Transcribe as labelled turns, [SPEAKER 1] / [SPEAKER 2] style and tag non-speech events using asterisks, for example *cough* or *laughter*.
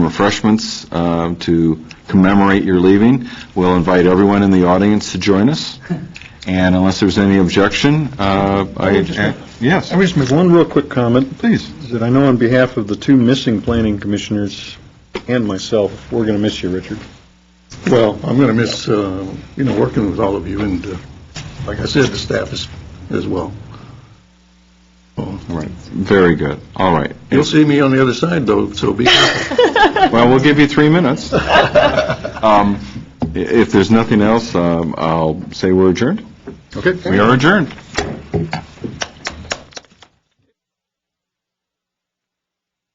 [SPEAKER 1] refreshments um, to commemorate your leaving. We'll invite everyone in the audience to join us, and unless there's any objection, uh, I... Yes,
[SPEAKER 2] I would just make one real quick comment,
[SPEAKER 1] please.
[SPEAKER 2] is that I know on behalf of the two missing planning commissioners and myself, we're going to miss you, Richard.
[SPEAKER 3] Well, I'm going to miss, uh, you know, working with all of you, and uh, like I said, the staff is, as well. So,
[SPEAKER 1] All right, very good, all right.
[SPEAKER 3] You'll see me on the other side, though,
[SPEAKER 1] *laughs*
[SPEAKER 3] so be careful.
[SPEAKER 1] Well, we'll give you three minutes. Um, i- If there's nothing else, um, I'll say we're adjourned.
[SPEAKER 3] Okay.
[SPEAKER 1] We are adjourned.